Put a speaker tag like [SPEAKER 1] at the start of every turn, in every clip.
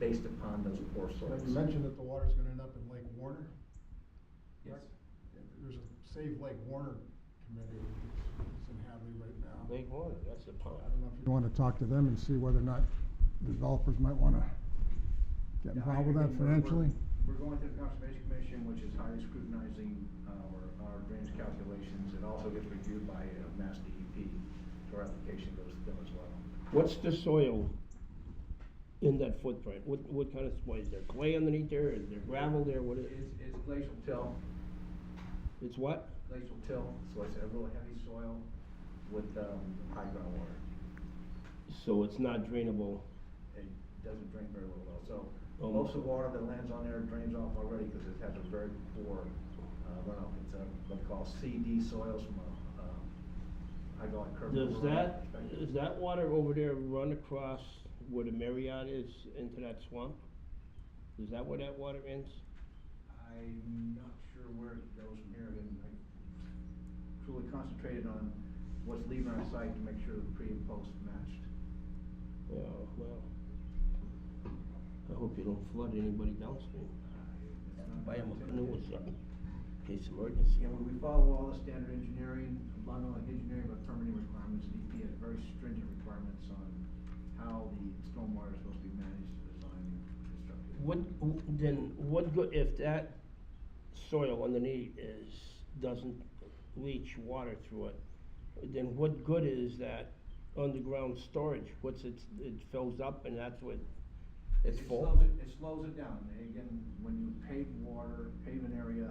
[SPEAKER 1] based upon those poor
[SPEAKER 2] Now,
[SPEAKER 1] soils.
[SPEAKER 2] you mentioned that the water's gonna end up in Lake Warner.
[SPEAKER 3] Yes.
[SPEAKER 2] There's a Save Lake Warner committee that's in Hadley right now.
[SPEAKER 4] Lake Warner, that's the pond.
[SPEAKER 2] I don't know if you wanna talk to them and see whether or not developers might wanna get
[SPEAKER 1] Yeah, I
[SPEAKER 2] involved with that
[SPEAKER 1] agree. We're- we're-
[SPEAKER 2] financially.
[SPEAKER 1] We're going through the Conservation Commission, which is highly scrutinizing uh, our, our drainage calculations. It also gets reviewed by uh, Mass DEP, so our application goes to them as well.
[SPEAKER 4] What's the soil in that footprint? What, what kind of, what, is there clay underneath there? Is there gravel there? What is,
[SPEAKER 1] It's, it's glacial till,
[SPEAKER 4] it's what?
[SPEAKER 1] glacial till, so it's a real heavy soil with, um, high groundwater.
[SPEAKER 4] So it's not drainable.
[SPEAKER 1] It doesn't drain very well, so
[SPEAKER 4] Oh.
[SPEAKER 1] most of the water that lands on there drains off already because it has a very poor, uh, runoff. It's a, what they call CD soils from a, um, hydraulic curve.
[SPEAKER 4] Does
[SPEAKER 1] runoff
[SPEAKER 4] that,
[SPEAKER 1] perspective.
[SPEAKER 4] does that water over there run across where the Marriott is into that swamp? Is that where that water ends?
[SPEAKER 1] I'm not sure where it goes from here, and I truly concentrated on what's leaving our site to make sure the pre and post matched.
[SPEAKER 4] Yeah, well, I hope you don't flood anybody downstream.
[SPEAKER 1] Uh, It's not
[SPEAKER 4] Buy 'em a
[SPEAKER 1] intended.
[SPEAKER 4] canoe or something, in case emergency.
[SPEAKER 1] You know, we follow all the standard engineering, not only engineering, but permitting requirements, and EP has very stringent requirements on how the stormwater is supposed to be managed, designed, and constructed.
[SPEAKER 4] What, then, what good, if that soil underneath is, doesn't leach water through it, then what good is that underground storage? What's it, it fills up and that's what, it's
[SPEAKER 1] It
[SPEAKER 4] full?
[SPEAKER 1] slows it- It slows it down, and again, when you pave water, pave an area,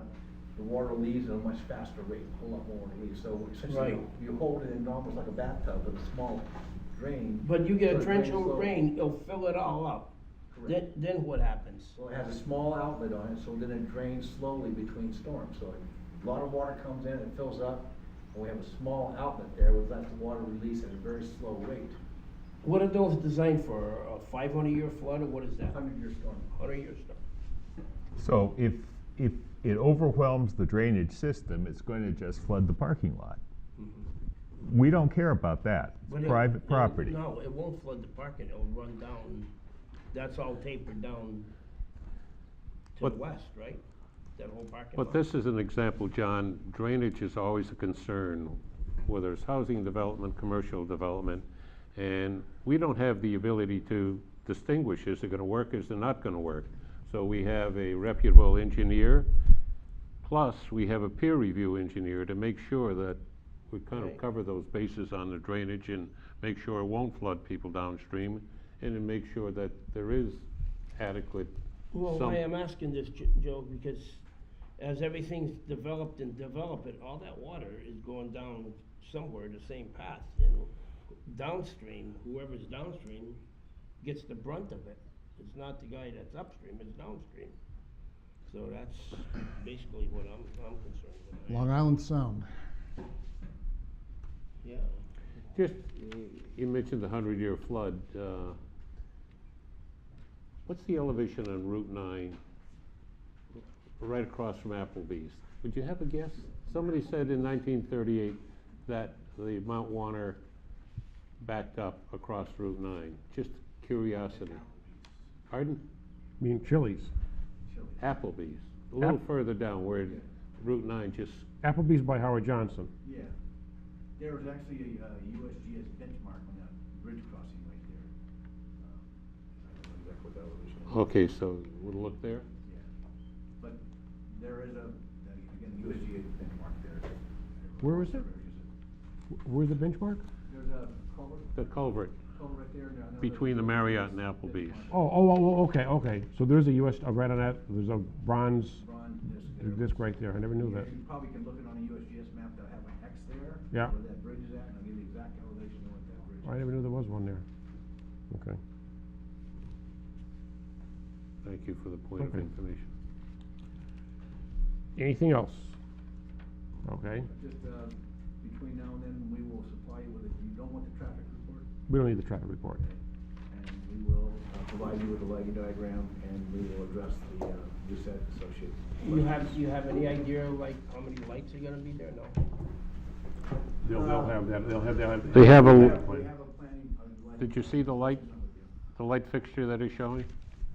[SPEAKER 1] the water leaves at a much faster rate, a whole lot more water leaves, so essentially,
[SPEAKER 4] Right.
[SPEAKER 1] you- you hold it in almost like a bathtub with a small drain.
[SPEAKER 4] But you get
[SPEAKER 1] so
[SPEAKER 4] a
[SPEAKER 1] it
[SPEAKER 4] trench
[SPEAKER 1] drains
[SPEAKER 4] of
[SPEAKER 1] slowly.
[SPEAKER 4] rain, it'll fill it all up. Then,
[SPEAKER 1] Correct.
[SPEAKER 4] then what happens?
[SPEAKER 1] Well, it has a small outlet on it, so then it drains slowly between storms, so a lot of water comes in, it fills up, and we have a small outlet there, which lets the water release at a very slow rate.
[SPEAKER 4] What are those designed for, a five hundred year flood or what is that?
[SPEAKER 1] Hundred year storm.
[SPEAKER 4] Hundred year storm?
[SPEAKER 5] So if, if it overwhelms the drainage system, it's going to just flood the parking lot.
[SPEAKER 6] Mm-hmm.
[SPEAKER 5] We don't care about that.
[SPEAKER 4] But
[SPEAKER 5] It's
[SPEAKER 4] it-
[SPEAKER 5] private
[SPEAKER 4] it-
[SPEAKER 5] property.
[SPEAKER 4] No, it won't flood the parking, it'll run down, that's all tapered down to the
[SPEAKER 7] But-
[SPEAKER 4] west, right? That whole parking lot.
[SPEAKER 7] But this is an example, John, drainage is always a concern, whether it's housing development, commercial development, and we don't have the ability to distinguish, is it gonna work, is it not gonna work? So we have a reputable engineer, plus we have a peer review engineer to make sure that we kind
[SPEAKER 4] Right.
[SPEAKER 7] of cover those bases on the drainage and make sure it won't flood people downstream, and to make sure that there is adequate
[SPEAKER 4] Well,
[SPEAKER 7] some-
[SPEAKER 4] why I'm asking this, Jo- Joe, because as everything's developed and developed, it, all that water is going down somewhere the same path, and downstream, whoever's downstream gets the brunt of it. It's not the guy that's upstream, it's downstream. So that's basically what I'm, I'm concerned with.
[SPEAKER 2] Long Island Sound.
[SPEAKER 4] Yeah,
[SPEAKER 7] Just, uh, you mentioned the hundred-year flood. uh, What's the elevation on Route nine, right across from Applebee's? Would you have a guess? Somebody said in nineteen thirty-eight that the Mount Warner backed up across Route nine. Just curiosity. Pardon?
[SPEAKER 6] mean Chili's.
[SPEAKER 7] Applebee's, a little
[SPEAKER 6] App-
[SPEAKER 7] further down where Route nine just,
[SPEAKER 6] Applebee's by Howard Johnson.
[SPEAKER 1] Yeah, there was actually a uh, USGS benchmark on that bridge crossing right there. Um, I don't know exactly what that elevation is.
[SPEAKER 7] okay, so we'll look there.
[SPEAKER 1] Yeah. But there is a, again, USGS benchmark there.
[SPEAKER 6] Where was it? Wh- Where's the benchmark?
[SPEAKER 1] There's a culvert,
[SPEAKER 7] The culvert
[SPEAKER 1] culvert right there. and another-
[SPEAKER 7] between the Marriott and Applebee's.
[SPEAKER 6] Oh, oh, oh, oh, okay, okay. So there's a US, uh, right on that, there's a bronze
[SPEAKER 1] Bronze disc there.
[SPEAKER 6] disc right there. I never knew that.
[SPEAKER 1] You probably can look it on a USGS map, they'll have an X there.
[SPEAKER 6] Yeah.
[SPEAKER 1] Where that bridge is at, and I'll give you the exact elevation of what that bridge is.
[SPEAKER 6] I never knew there was one there. Okay.
[SPEAKER 7] Thank you for the point of
[SPEAKER 6] Okay.
[SPEAKER 7] information.
[SPEAKER 6] Anything else? Okay.
[SPEAKER 1] Just, uh, between now and then, we will supply you with, it. you don't want the traffic report,
[SPEAKER 6] We don't need the traffic report.
[SPEAKER 1] and we will uh, provide you with a lighting diagram, and we will address the, uh, reset associated.
[SPEAKER 4] you have, you have any idea like how many lights are gonna be there? No?
[SPEAKER 6] They'll,
[SPEAKER 1] uh,
[SPEAKER 6] they'll have that, they'll have, they'll have.
[SPEAKER 7] They have a-
[SPEAKER 1] We have a planning, uh, lighting
[SPEAKER 7] Did you see the light,
[SPEAKER 1] plan with you.
[SPEAKER 7] the light fixture that is showing?